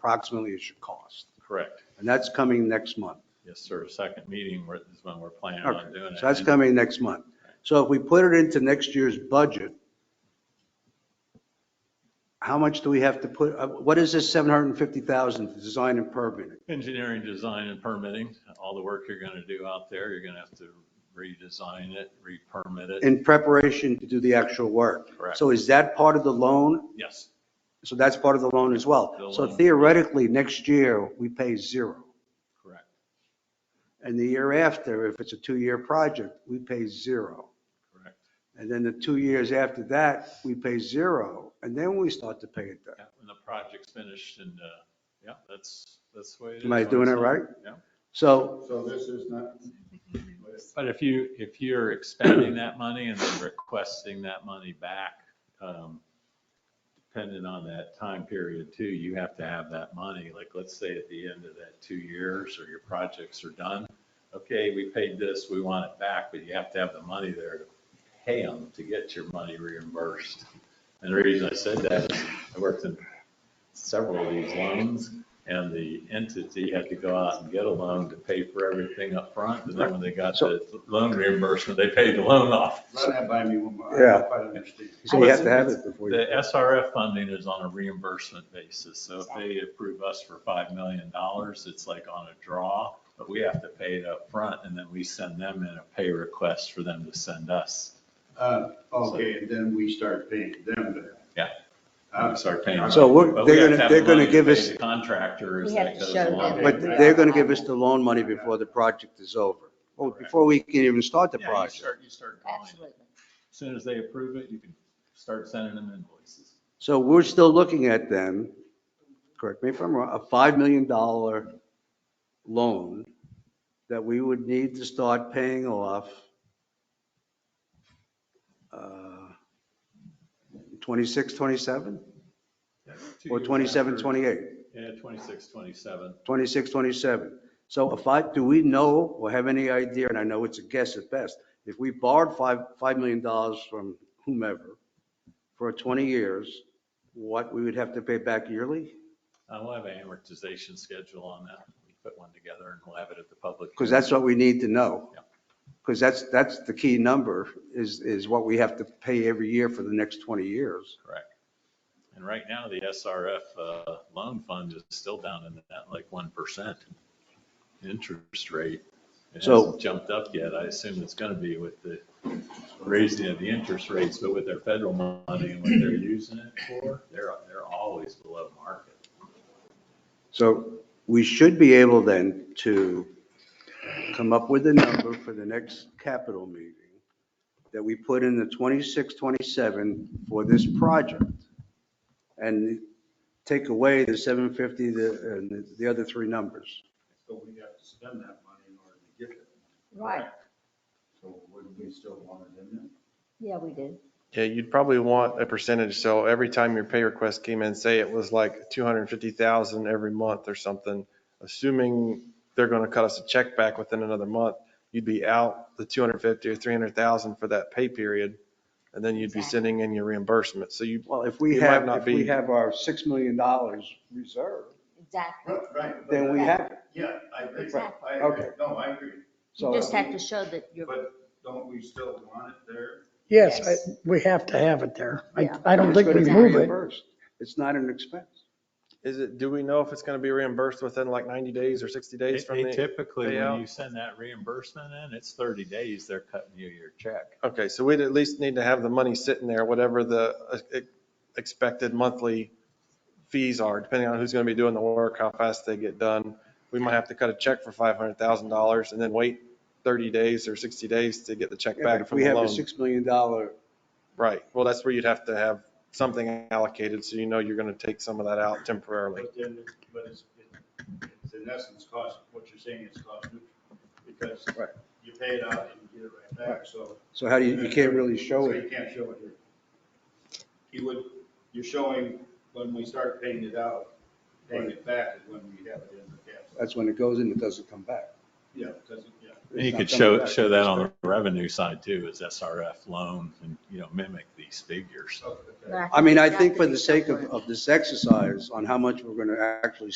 approximately it should cost. Correct. And that's coming next month. Yes, sir. Second meeting where- is when we're planning on doing Okay, it. so that's coming next month. So if we put it into next year's budget, how much do we have to put, uh, what is this 750,000 to design and permitting? Engineering, design and permitting, all the work you're going to do out there, you're going to have to redesign it, re-permit it. In preparation to do the actual work. Correct. So is that part of the loan? Yes, So that's part of the loan as The well. So loan. theoretically, next year, we pay zero. correct, And the year after, if it's a two-year project, we pay zero. correct. And then the two years after that, we pay zero. And then we start to pay it back. Yeah, When the project's finished and, uh, yeah, that's, that's the way it is. Am I doing it right? Yeah. So So this is not, But if you, if you're expending that money and then requesting that money back, um, depending on that time period too, you have to have that money. Like, let's say at the end of that two years or your projects are done, okay, we paid this, we want it back, but you have to have the money there to pay them to get your money reimbursed. And the reason I said that is I worked in several of these loans and the entity had to go out and get a loan to pay for everything up front. And then when they got the loan reimbursement, they paid the loan off. run that by me one more. I Yeah. don't quite understand. So you have to have it before you. The SRF funding is on a reimbursement basis, so if they approve us for five million dollars, it's like on a draw, but we have to pay it up front, and then we send them in a pay request for them to send us. Uh, Okay, and then we start paying them to. Yeah. Uh, We start paying. them. So we're- But we they're have gonna- to have they're the gonna money to give pay us- the Contractor as We have that to goes show along. them. But they're gonna give us the loan money before the project is over, or before we can even start the Yeah, you project. start, you start calling it. Absolutely. As Soon as they approve it, you can start sending them invoices. So we're still looking at then, correct me if I'm wrong, a five million dollar loan that we would need to start paying off uh, 26, 27, Two or years 27, after- 28, Yeah, 26, 27. 26, 27. So if I, do we know or have any idea, and I know it's a guess at best, if we borrowed five, $5 million dollars from whomever for 20 years, what we would have to pay back yearly? Uh, we'll have an amortization schedule on that. We put one together and we'll have it at the public. Because hearing. that's what we need to know. Yeah. Because that's, that's the key number, is, is what we have to pay every year for the next 20 years. Correct. And right now, the SRF uh, loan fund is still down in that like 1% interest rate. It So- hasn't jumped up yet. I assume it's going to be with the raising of the interest rates, but with their federal money and what they're using it for, they're, they're always below market. So we should be able then to come up with a number for the next capital meeting that we put in the 26, 27 for this project. And take away the 750, the, and the other three numbers. So we have to spend that money in order to get it. Right, So would we still want it in there? yeah, we do. Yeah, you'd probably want a percentage, so every time your pay request came in, say it was like 250,000 every month or something, assuming they're going to cut us a check back within another month, you'd be out the 250 or 300,000 for that pay period, and then you'd be Exactly. sending in your reimbursement, so you, Well, if we It might have, not if we be- have our $6 million reserved, Exactly. Right. but then we I- have it. Yeah, I agree. Exactly. I agree. Okay. No, I agree. So You just have to show that you're, But don't we still want it there? Yes, I- Yes. we have to have it there. I, Yeah. I don't think we It's gonna move be it. reimbursed. It's not an expense. is it, do we know if it's going to be reimbursed within like 90 days or 60 They days from they the? typically, when payout. you send that reimbursement in, it's 30 days, they're cutting you your check. Okay, so we'd at least need to have the money sitting there, whatever the uh, e- expected monthly fees are, depending on who's going to be doing the work, how fast they get done. We might have to cut a check for $500,000 and then wait 30 days or 60 days to get the check Yeah, but back If from we the have a loan. $6 million Right, well, that's where you'd have to have something allocated, so you know you're going to take some of that out temporarily. But then, but it's, it's in essence cost, what you're saying is cost neutral. Because Right. you pay it out and you get it right back, so. So how do you, you can't really show So it. you can't show it here. You would, you're showing when we start paying it out, paying it back is when we have it in the cash. That's when it goes in, it doesn't come back. Yeah, because, yeah, You could show, show that on the revenue side too, is SRF loan and, you know, mimic these figures. Okay. But I mean, I that think could for be the sake of, separate. of this exercise on how much we're going to actually